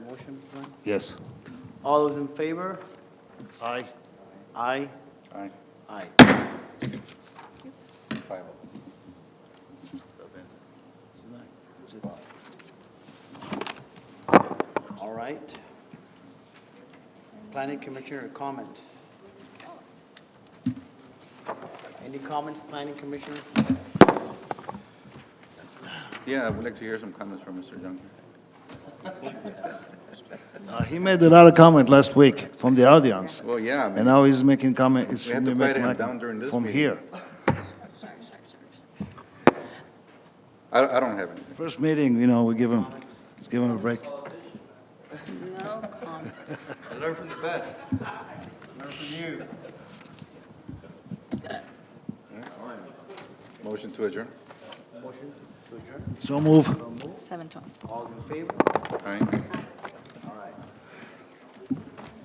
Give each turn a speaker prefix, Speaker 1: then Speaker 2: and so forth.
Speaker 1: motion, Glenn?
Speaker 2: Yes.
Speaker 1: All those in favor?
Speaker 2: Aye.
Speaker 1: Aye,
Speaker 3: Aye.
Speaker 1: aye.
Speaker 3: Five oh.
Speaker 1: All right. Planning Commissioner comments? Any comments, Planning Commissioner?
Speaker 3: Yeah, I would like to hear some comments from Mr. Young.
Speaker 2: Uh, He made a lot of comment last week from the audience,
Speaker 3: Well, yeah, I mean,
Speaker 2: and now he's making comment, he's
Speaker 3: We have to
Speaker 2: making
Speaker 3: quiet him
Speaker 2: comment
Speaker 3: down during this
Speaker 2: from
Speaker 3: meeting.
Speaker 2: here.
Speaker 3: I, I don't have anything.
Speaker 2: First meeting, you know, we give him, let's give him a break.
Speaker 4: No comment.
Speaker 3: I learned from the best. Motion to adjourn.
Speaker 1: Motion to adjourn,
Speaker 2: So move.
Speaker 4: Seven twelve.
Speaker 1: all in favor?
Speaker 3: Aye.